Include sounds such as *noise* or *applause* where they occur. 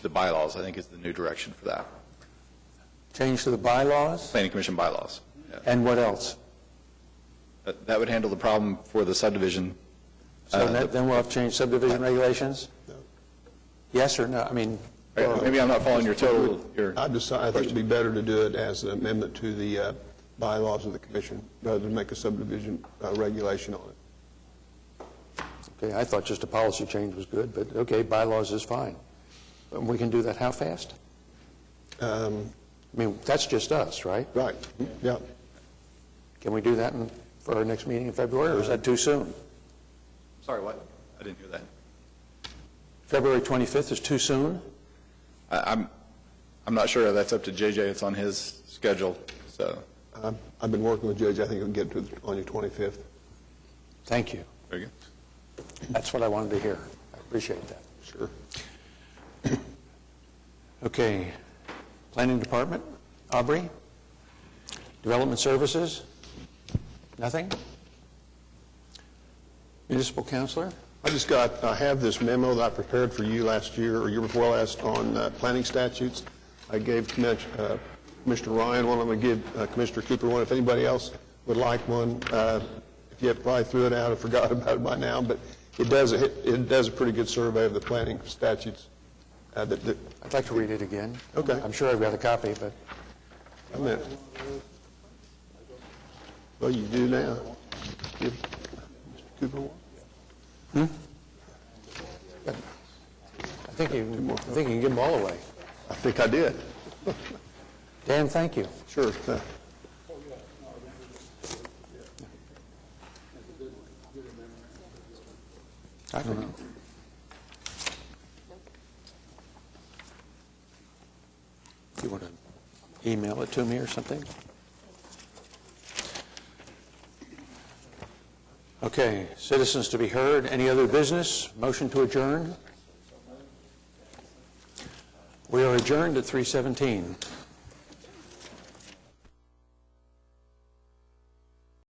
the bylaws, I think, is the new direction for that. Change to the bylaws? Planning Commission bylaws. Yeah. And what else? That that would handle the problem for the subdivision. So Uh, that- then we'll have to change subdivision regulations? Yes or no? I mean, All right, Maybe I'm not following your total, your, Uh, Uh, I decide, I think it'd be better to do it as an amendment to the uh, bylaws of the commission, rather than make a subdivision uh, regulation on it. okay, I thought just a policy change was good, but okay, bylaws is fine. And we can do that how fast? Um, I mean, that's just us, right? Right, yeah. Can we do that in- for our next meeting in February, or is that too soon? sorry, what? I didn't hear that. February 25th is too soon? I- I'm, I'm not sure, that's up to JJ, it's on his schedule, so, I've- Uh, I've been working with Judge, I think it'll get to, the- on your 25th. Thank you. very good. That's what I wanted to hear. I appreciate that. Sure. Okay. Planning Department, Aubrey? Development Services? Nothing? Municipal Counselor? I just got, I have this memo that I prepared for you last year, or year before last, on uh, planning statutes. I gave Commis- uh, Commissioner Ryan one, I'm going to give uh, Commissioner Cooper one, if anybody else would like one. uh, If you have probably threw it out or *laughs* forgot about it by now, but it does, it it does a pretty good survey of the planning statutes uh, that, that- I'd like to read it again. Okay. I'm sure I've got a copy, but I meant. Well, you do now. Give Mr. Cooper one. I think you, I think you can give them all away. I think I did. Dan, thank you. Sure. Uh, I don't know. You want to email it to me or something? Okay, citizens to be heard, any other business? Motion to adjourn? We are adjourned at 3:17.